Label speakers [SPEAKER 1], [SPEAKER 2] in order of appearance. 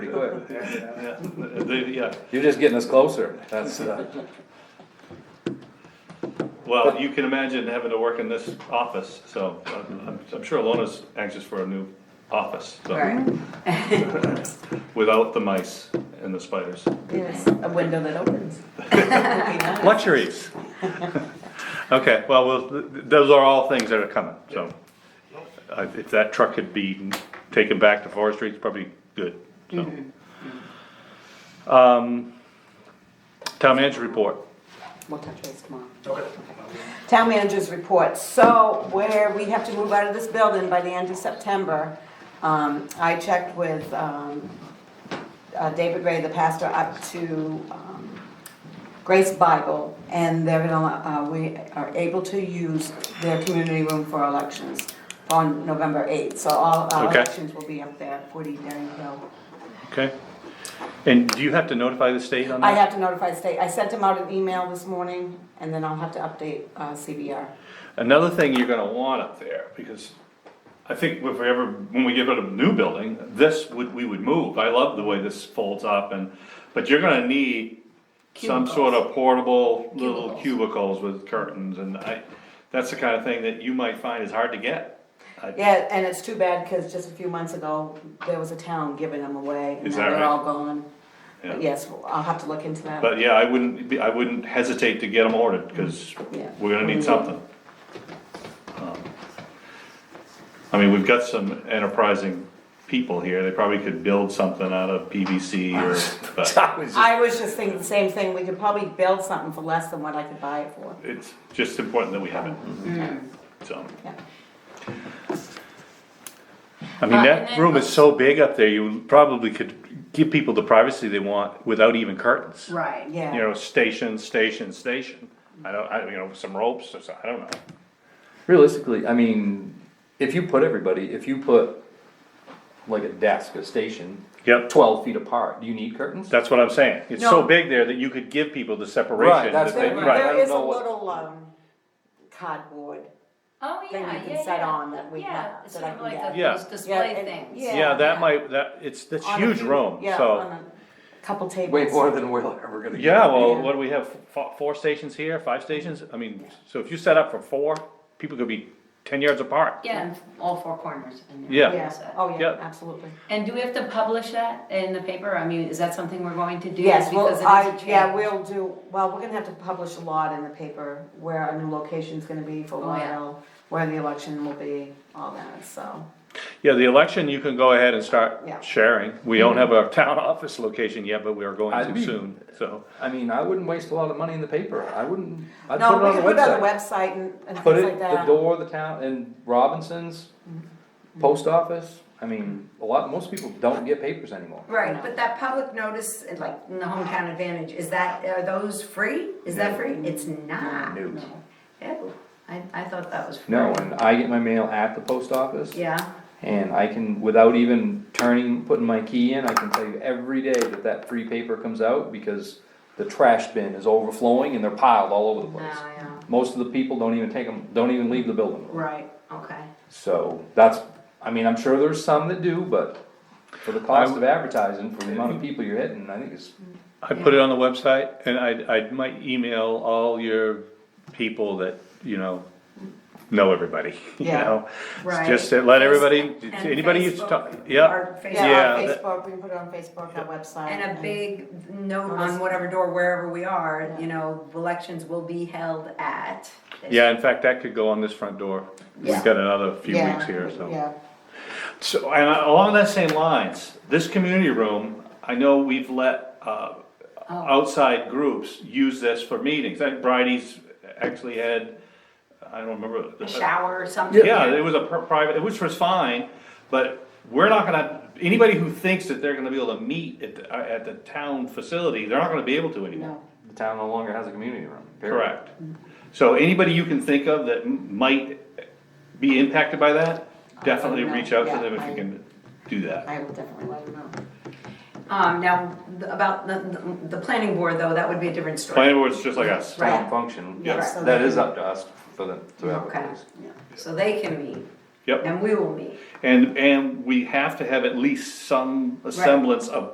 [SPEAKER 1] Pretty quick.
[SPEAKER 2] Yeah,
[SPEAKER 3] Yeah.
[SPEAKER 2] they, yeah,
[SPEAKER 1] You're just getting us closer, that's, uh,
[SPEAKER 2] well, you can imagine having to work in this office, so I'm, I'm- I'm sure Alona's anxious for a new office, so,
[SPEAKER 4] Right,
[SPEAKER 2] without the mice and the spiders.
[SPEAKER 4] yes, a window that opens.
[SPEAKER 2] Luxuries. Okay, well, we'll- th- th- those are all things that are coming, so. Uh, if that truck could be taken back to forestry, it's probably good, so.
[SPEAKER 4] Mm-hmm.
[SPEAKER 2] Um, town manager report.
[SPEAKER 4] We'll touch base tomorrow.
[SPEAKER 3] Okay.
[SPEAKER 4] Town manager's report, so where we have to move out of this building by the end of September, um, I checked with, um, uh, David Ray, the pastor, up to, um, Grace Bible, and they're gonna, uh, we are able to use their community room for elections on November eighth, so all, our
[SPEAKER 2] Okay.
[SPEAKER 4] elections will be up there, at forty Daring Hill.
[SPEAKER 2] Okay. And do you have to notify the state on that?
[SPEAKER 4] I have to notify the state, I sent them out an email this morning, and then I'll have to update, uh, CBR.
[SPEAKER 2] Another thing you're gonna want up there, because I think if we ever, when we get rid of a new building, this would, we would move. I love the way this folds up and, but you're gonna need some sort of portable little cubicles with curtains and I, that's the kind of thing that you might find is hard to get. I-
[SPEAKER 4] Yeah, and it's too bad, cause just a few months ago, there was a town giving them away, and
[SPEAKER 2] Is
[SPEAKER 4] now
[SPEAKER 2] that
[SPEAKER 4] they're
[SPEAKER 2] right?
[SPEAKER 4] all gone.
[SPEAKER 2] Yeah.
[SPEAKER 4] But yes, I'll have to look into that.
[SPEAKER 2] But yeah, I wouldn't, be- I wouldn't hesitate to get them ordered, cause
[SPEAKER 4] Yeah.
[SPEAKER 2] we're gonna need something. Um, I mean, we've got some enterprising people here, they probably could build something out of PVC or, but
[SPEAKER 1] I was just-
[SPEAKER 4] I was just thinking the same thing, we could probably build something for less than what I could buy it for,
[SPEAKER 2] it's just important that we have it.
[SPEAKER 5] Mm-hmm.
[SPEAKER 2] So,
[SPEAKER 4] yeah.
[SPEAKER 2] I mean,
[SPEAKER 5] Uh,
[SPEAKER 2] that
[SPEAKER 5] and
[SPEAKER 2] room
[SPEAKER 5] then-
[SPEAKER 2] is so big up there, you probably could give people the privacy they want without even curtains.
[SPEAKER 5] Right.
[SPEAKER 4] Yeah.
[SPEAKER 2] You know, station, station, station, I don't, I, you know, some ropes or something, I don't know.
[SPEAKER 1] realistically, I mean, if you put everybody, if you put like a desk, a station,
[SPEAKER 2] Yep,
[SPEAKER 1] twelve feet apart, do you need curtains?
[SPEAKER 2] that's what I'm saying, it's so
[SPEAKER 4] No.
[SPEAKER 2] big there that you could give people the separation
[SPEAKER 1] that's
[SPEAKER 2] that they,
[SPEAKER 1] what I'm-
[SPEAKER 2] right.
[SPEAKER 1] I
[SPEAKER 4] There
[SPEAKER 1] don't
[SPEAKER 4] is a
[SPEAKER 1] know what-
[SPEAKER 4] little, um, cardboard,
[SPEAKER 5] Oh,
[SPEAKER 4] Then
[SPEAKER 5] yeah,
[SPEAKER 4] you can
[SPEAKER 5] yeah,
[SPEAKER 4] set
[SPEAKER 5] yeah.
[SPEAKER 4] on that
[SPEAKER 5] The-
[SPEAKER 4] we
[SPEAKER 5] yeah,
[SPEAKER 4] have-
[SPEAKER 5] it's
[SPEAKER 4] that I
[SPEAKER 5] sort of
[SPEAKER 4] can
[SPEAKER 5] like
[SPEAKER 4] get.
[SPEAKER 5] a-
[SPEAKER 2] Yeah.
[SPEAKER 5] those display
[SPEAKER 4] Yeah, and-
[SPEAKER 5] things.
[SPEAKER 4] yeah.
[SPEAKER 2] Yeah, that
[SPEAKER 4] yeah.
[SPEAKER 2] might, that, it's, that's
[SPEAKER 4] on a
[SPEAKER 2] huge
[SPEAKER 4] few-
[SPEAKER 2] room,
[SPEAKER 4] yeah,
[SPEAKER 2] so.
[SPEAKER 4] on a Couple tables.
[SPEAKER 1] Way more than we're ever gonna. get.
[SPEAKER 2] Yeah, well,
[SPEAKER 4] Yeah.
[SPEAKER 2] what do we have, four, four stations here, five stations? I mean, so if you set up for four, people could be ten yards apart.
[SPEAKER 5] Yeah, all four corners. and
[SPEAKER 2] Yeah.
[SPEAKER 5] everything
[SPEAKER 4] Yeah,
[SPEAKER 5] else.
[SPEAKER 4] oh yeah,
[SPEAKER 2] Yep.
[SPEAKER 4] absolutely.
[SPEAKER 5] And do we have to publish that in the paper? I mean, is that something we're going to do?
[SPEAKER 4] Yes, well,
[SPEAKER 5] Because it is a
[SPEAKER 4] I, yeah,
[SPEAKER 5] change.
[SPEAKER 4] we'll do, well, we're gonna have to publish a lot in the paper where our new location's gonna be for a
[SPEAKER 5] Oh, yeah.
[SPEAKER 4] while, where the election will be, all that, so.
[SPEAKER 2] Yeah, the election, you can go ahead and start
[SPEAKER 4] Yeah.
[SPEAKER 2] sharing. We don't have a town office location yet, but we are going
[SPEAKER 1] I'd
[SPEAKER 2] to
[SPEAKER 1] be-
[SPEAKER 2] soon, so.
[SPEAKER 1] I mean, I wouldn't waste a lot of money in the paper, I wouldn't, I'd
[SPEAKER 4] No,
[SPEAKER 1] put it
[SPEAKER 4] we can
[SPEAKER 1] on
[SPEAKER 4] put it
[SPEAKER 1] the
[SPEAKER 4] on the
[SPEAKER 1] website.
[SPEAKER 4] website and, and
[SPEAKER 1] Put
[SPEAKER 4] things like
[SPEAKER 1] it, the
[SPEAKER 4] that. Mm-hmm.
[SPEAKER 1] door, the town, and Robinson's, post office, I mean, a lot, most people don't get papers anymore.
[SPEAKER 4] No.
[SPEAKER 6] Right, but that public notice, like in the hometown advantage, is that, are those free? Is that free? It's not.
[SPEAKER 1] No.
[SPEAKER 6] Oh, I, I thought that was free.
[SPEAKER 1] No, and I get my mail at the post office.
[SPEAKER 6] Yeah,
[SPEAKER 1] And I can, without even turning, putting my key in, I can tell you every day that that free paper comes out because the trash bin is overflowing and they're piled all over the
[SPEAKER 6] no,
[SPEAKER 1] place.
[SPEAKER 6] yeah,
[SPEAKER 1] Most of the people don't even take them, don't even leave the building.
[SPEAKER 6] right, okay.
[SPEAKER 1] So that's, I mean, I'm sure there's some that do, but for the cost of advertising, for the amount of people you're hitting, I think it's,
[SPEAKER 2] I put it on the website and I, I might email all your people that, you know, know everybody, you
[SPEAKER 4] Yeah.
[SPEAKER 2] know?
[SPEAKER 6] Right.
[SPEAKER 2] Just to let everybody,
[SPEAKER 6] And
[SPEAKER 2] anybody who's
[SPEAKER 6] Facebook,
[SPEAKER 2] talking, yeah,
[SPEAKER 6] our
[SPEAKER 4] Yeah,
[SPEAKER 6] Facebook,
[SPEAKER 2] Yeah,
[SPEAKER 4] on
[SPEAKER 2] that-
[SPEAKER 4] Facebook, we can put it on Facebook, our website.
[SPEAKER 6] And a big note on whatever door, wherever we are, you know, elections will be held at.
[SPEAKER 2] yeah, in fact, that could go on this front door. We've
[SPEAKER 6] Yeah.
[SPEAKER 2] got another few
[SPEAKER 4] Yeah,
[SPEAKER 2] weeks here, so.
[SPEAKER 4] Yeah,
[SPEAKER 2] So, and along that same lines, this community room, I know we've let, uh,
[SPEAKER 6] Oh.
[SPEAKER 2] outside groups use this for meetings, like Bridie's actually had, I don't remember.
[SPEAKER 5] A shower or something.
[SPEAKER 2] Yeah, it was a pri- private, which was fine, but we're not gonna, anybody who thinks that they're gonna be able to meet at, the- uh, at the town facility, they're not gonna be able to anymore.
[SPEAKER 4] no,
[SPEAKER 1] the town no longer has a community room. period.
[SPEAKER 2] Correct. So anybody you can think of that m- might be impacted by that, definitely
[SPEAKER 4] know.
[SPEAKER 2] reach out to
[SPEAKER 4] Yeah,
[SPEAKER 2] them if
[SPEAKER 4] I-
[SPEAKER 2] you can do that.
[SPEAKER 4] I will definitely let them know.
[SPEAKER 6] Um, now, th- about the, the planning board though, that would be a different story.
[SPEAKER 2] Planning board's just like us.
[SPEAKER 6] Right.
[SPEAKER 1] Town function,
[SPEAKER 4] Yeah, so
[SPEAKER 1] that
[SPEAKER 4] they-
[SPEAKER 1] is up to us for them to
[SPEAKER 6] Okay.
[SPEAKER 1] advertise.
[SPEAKER 6] So they can meet
[SPEAKER 2] Yep.
[SPEAKER 6] and we will meet.
[SPEAKER 2] And, and we have to have at least some semblance of